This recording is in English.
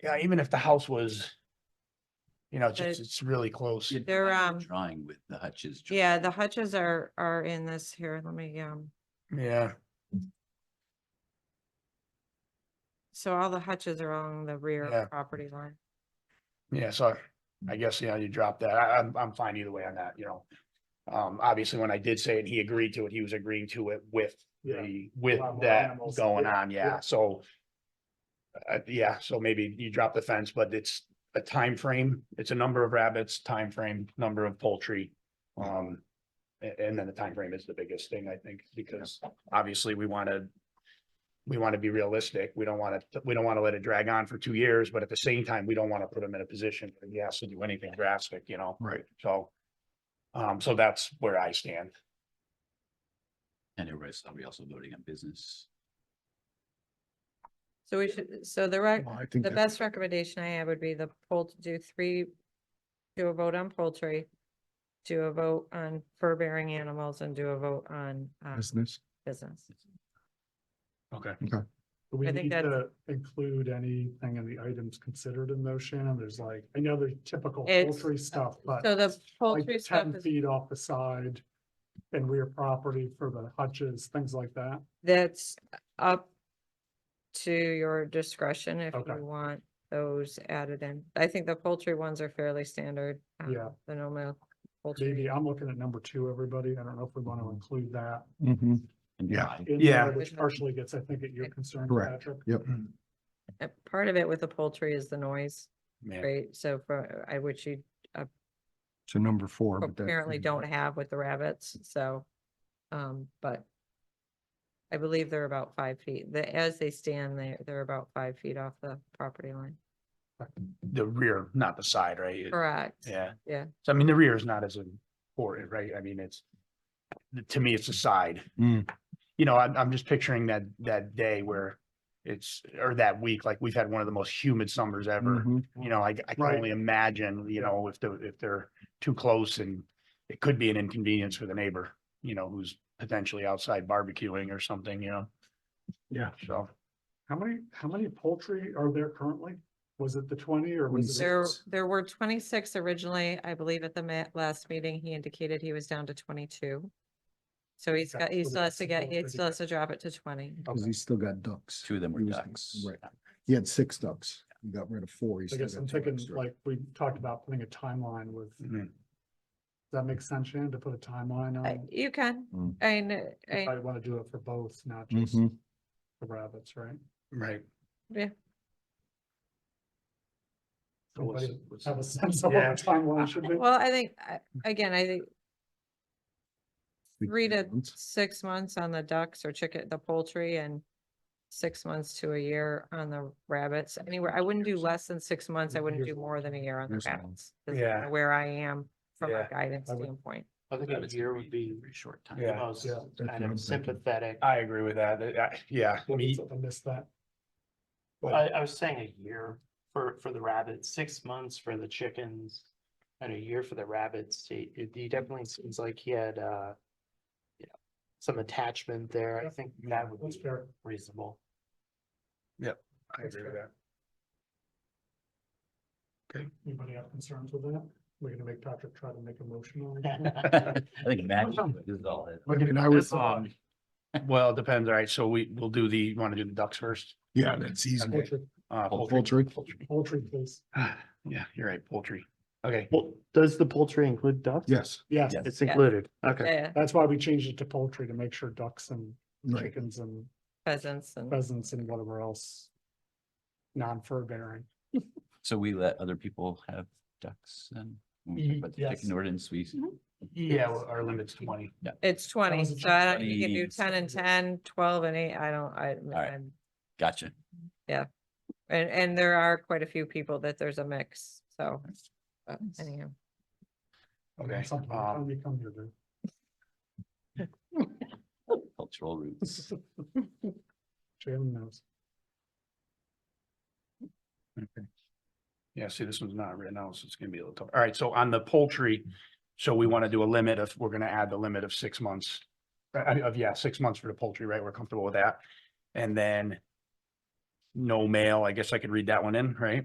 Yeah, even if the house was, you know, But- just, it's really close. You'd They're, find a um, Drawing with the Hutch's. drawing. Yeah, the hutches are, are in this here. Let me, um, Yeah, so all the hutches are along the rear Yeah. of property line. yeah, so I guess, you know, you drop that. I, I'm, I'm fine either way on that, you know. Um, obviously, when I did say it, he agreed to it, he was agreeing to it with Yeah. the, with Lot more that animals. going Yeah, on, yeah, yeah. so. Uh, yeah, so maybe you drop the fence, but it's a time frame. it's a number of rabbits, time frame, number of poultry. Um, a- and, then the time frame is the biggest thing, I think, because obviously we wanna. We wanna be realistic, we don't wanna, we don't wanna let it drag on for two years, but at the same time, we don't wanna put him in a position where he has to do anything drastic, you know? Right. So. Um, so that's where I stand. And it was, are we also voting on business? So we should, so the rec, Well, I think the that- best recommendation I have would be the poll to do three, do a vote on poultry, do a vote on fur bearing animals and do a vote on, um, business. business. Okay. Do We I think need that's- to include anything in the items considered in those, Shannon. There's like, I know there's typical It's- poultry stuff, but So the like poultry stuff ten is, feet off the side and rear property for the hutches, things like that. that's up to your discretion if Okay. you want those added in. I think the poultry ones are fairly standard. um, Yeah. The normal poultry. Maybe I'm looking at number two, everybody. I don't know if we want to include that. And Yeah. why? in Yeah. there, Which partially gets, I think, at your concern, Correct. Patrick. Yep. uh, part of it with the poultry is the noise, Yeah. right? So for, I, which you So number four. but that's- apparently don't have with the rabbits, so, um, but I believe they're about five feet. The, as they stand, they, they're about five feet off the property line. The rear, not the side, right? Correct. Yeah. Yeah. So I mean, the rear is not as important, right? I mean, it's, to me, it's the side. Mm. You know, I'm, I'm just picturing that, that day where it's, or that week, like we've had one of the most humid summers ever. Mhm. You know, I, I can Right. only imagine, you know, if the, if they're too close and it could be an inconvenience for the neighbor, you know, who's potentially outside barbecuing or something, you know? Yeah. So, How many, how many poultry are there currently? Was it the twenty or was it? There, Yes. there were twenty-six originally, I believe at the ma- last meeting, he indicated he was down to twenty-two. So he's Okay, got, he so still the has to get, he poultry- still has to drop it to twenty. Cause he's still got ducks. Two of them were He was- ducks. Right. He had six ducks. He got rid of four. He's I still guess got I'm two thinking, extra. like, we talked about putting a timeline with, does mm, that make sense, Shannon, to put a timeline on? I- it? Uh, You can, Mm. I, kn- You I, probably want to do it for both, not just Mhm. the rabbits, right? right. yeah. So what's- Anybody what's- Have a sense of what Yeah. the timeline should be? Well, I think, I- again, I think Big three to ones. six months on the ducks or chicken, the poultry and six months to a year on the rabbits. Anywhere, I wouldn't do less than six months. I wouldn't do Here's- more than a year on the here's one. rabbits. is Yeah. kinda Where I am from a Yeah, guidance I would- standpoint. I think Rabbits a can year would be Very short time. Yeah. the most Yeah. That's what kind I'm thinking. of sympathetic. I, I agree with that. I- Yeah. I mean, I missed that. I was saying a year for, for the rabbits, six months for the chickens and a year for the rabbits. He, he definitely seems like he had, uh, you know, some attachment there. I think that would That's be fair. reasonable. I agree with that. Anybody have concerns with that? We're gonna make Patrick try to make a motion on it. I think Matt, this is all. it- I mean, I was, That's, um, Well, it depends. All right, so we, we'll do the, you want to do the ducks first? yeah, that's easy. Okay. Poultry, Uh, Poultry. poultry, please. Yeah, you're right, poultry. Okay, Well, does the poultry include ducks? Yes, Yes, Yeah. It's Yeah. included. Okay. Yeah, that's why we changed it to poultry to make sure ducks and right. chickens and pheasants and pheasants and whatever else. Non-fur bearing. So we let other people have ducks and when we talk Ye- about the chicken yes. ordinance, we, Mm-hmm. yeah, well, our limit's twenty. it's twenty. was a So I don't, you can do 20. ten and 10, 12 and eight. I don't, I, right. I'm- gotcha. and, and there are quite a few people that there's a mix. So but Nice. anyhow. Okay, Something, um, time you come here, dude. Cultural roots. Shannon knows. yeah, see, this one's not written out, so it's gonna be a little tough. All right, so on the poultry, so we want to do a limit of, we're gonna add the limit of six months. uh, Of, yeah, six months for the poultry, right? We're comfortable with that. And then no mail, I guess I could read that one in, right?